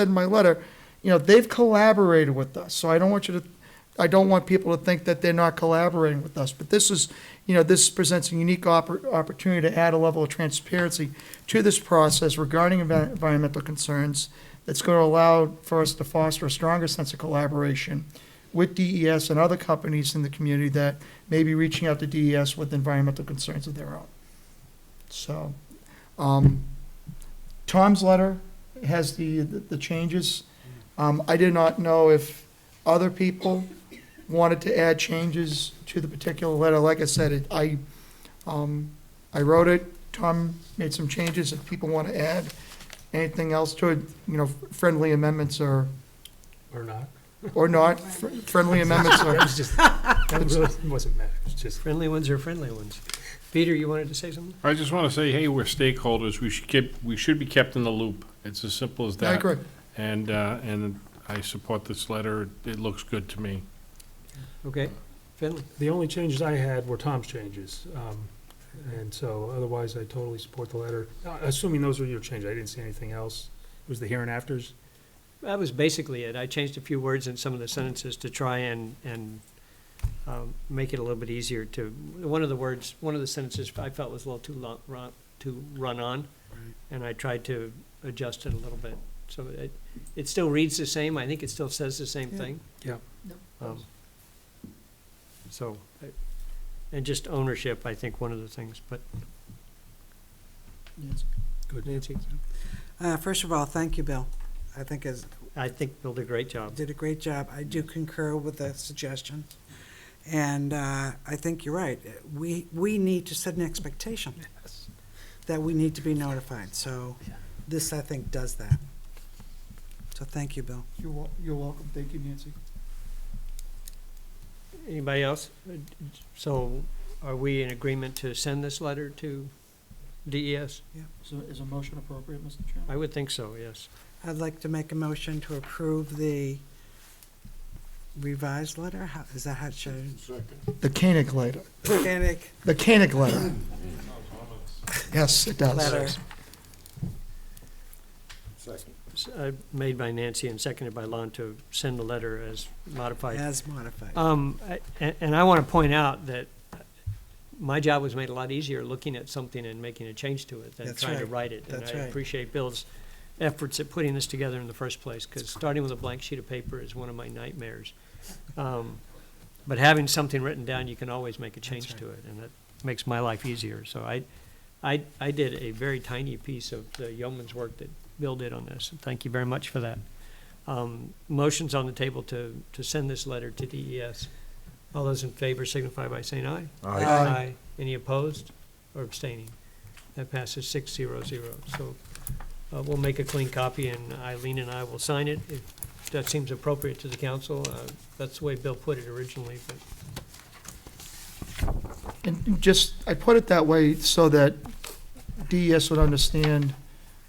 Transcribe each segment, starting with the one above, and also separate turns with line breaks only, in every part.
said in my letter, you know, they've collaborated with us, so I don't want you to, I don't want people to think that they're not collaborating with us, but this is, you know, this presents a unique oppor- opportunity to add a level of transparency to this process regarding envi- environmental concerns that's going to allow for us to foster a stronger sense of collaboration with DES and other companies in the community that may be reaching out to DES with environmental concerns of their own. So, um, Tom's letter has the, the changes. Um, I did not know if other people wanted to add changes to the particular letter. Like I said, it, I, um, I wrote it, Tom made some changes. If people want to add anything else to it, you know, friendly amendments or,
Or not?
or not, Fr- friendly amendments
That
are,
was just, that really wasn't meant, it's just.
Friendly ones are friendly ones. Peter, you wanted to say something?
I just want to say, hey, we're stakeholders, we should keep, we should be kept in the loop. It's as simple as that.
I agree.
And, uh, and I support this letter, it looks good to me.
Okay, Finley.
The only changes I had were Tom's changes, um, and so otherwise I totally support the letter. Uh, Assuming those were your changes, I didn't see anything else. It was the here and afters.
That was basically it. I changed a few words in some of the sentences to try and, and um, make it a little bit easier to, one of the words, one of the sentences I felt was a little too long, run, too run on. And I tried to adjust it a little bit. So it, it still reads the same. I think it still says the same
Yeah.
thing.
Yeah.
Um, So, I- and just ownership, I think, one of the things, but
Yes.
Nancy,
Uh, First of all, thank you, Bill. I think is,
I think Bill did a great job.
did a great job. I do concur with the suggestion. And uh, I think you're right. We, we need to set an expectation that we need to be notified. So
Yeah.
this, I think, does that. So thank you, Bill.
You're, wel- you're welcome. Thank you, Nancy.
Anybody else? So are we in agreement to send this letter to DES?
So is a motion appropriate, Mr. Chairman?
I would think so, yes.
I'd like to make a motion to approve the revised letter. How- Is that how it should?
The Koenig letter,
Organic
the Koenig letter. Yes, it does.
letter.
S- uh, Made by Nancy and seconded by Lon to send the letter as modified.
As modified.
Um, I- a- And I want to point out that my job was made a lot easier looking at something and making a change to it than
That's
trying to
right.
write it.
That's
And I
right.
appreciate Bill's efforts at putting this together in the first place, because starting with a blank sheet of paper is one of my nightmares. Um, But having something written down, you can always make a change
right.
to it, and that makes my life easier. So I, I, I did a very tiny piece of the yeoman's work that Bill did on this, and thank you very much for that. Um, Motion's on the table to, to send this letter to DES. All those in favor signify by saying aye.
Aye. Aye.
Any opposed or abstaining? That passes six zero zero. So uh, we'll make a clean copy, and Eileen and I will sign it. If that seems appropriate to the council, Uh, that's the way Bill put it originally, but
And just, I put it that way so that DES would understand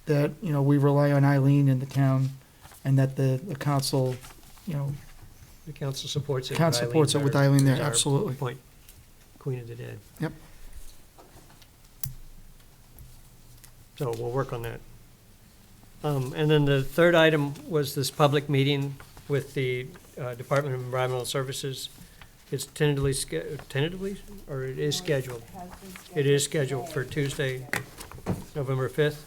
that, you know, we rely on Eileen in the town and that the, the council, you know,
the council supports it.
town supports it with Eileen there,
Eileen, our-
absolutely.
Point, Queen of the Dead.
Yep.
So we'll work on that. Um, And then the third item was this public meeting with the uh, Department of Environmental Services. It's tentatively, sch- tentatively, or it is scheduled? It is scheduled for Tuesday, November 5th,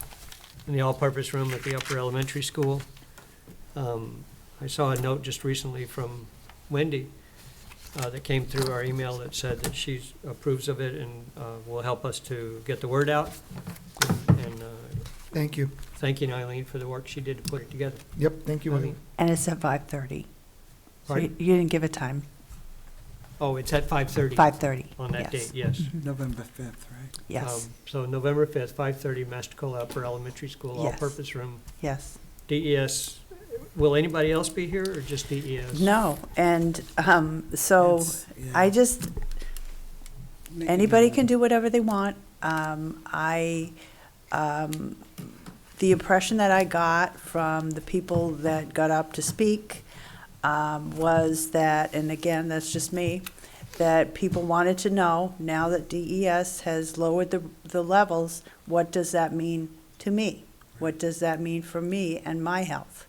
in the all-purpose room at the Upper Elementary School. Um, I saw a note just recently from Wendy uh, that came through our email that said that she approves of it and uh, will help us to get the word out. And uh,
Thank you.
thanking Eileen for the work she did to put it together.
Yep, thank you. Eileen.
Eileen?
And it's at five thirty. So you
Pardon?
you didn't give a time,
Oh, it's at 5:30.
five thirty.
On that date, yes.
November 5th, right?
Yes,
Um, So November 5th, 5:30, Mastacola Upper Elementary School,
Yes.
all-purpose room.
yes.
DES, will anybody else be here or just E DES?
No, and um, so
That's- yeah.
I just,
Make it
anybody
known.
can do whatever they want. Um, I, um, the impression that I got from the people that got up to speak um, was that, and again, that's just me, that people wanted to know, now that DES has lowered the, the levels, what does that mean to me? What does that mean for me and my health?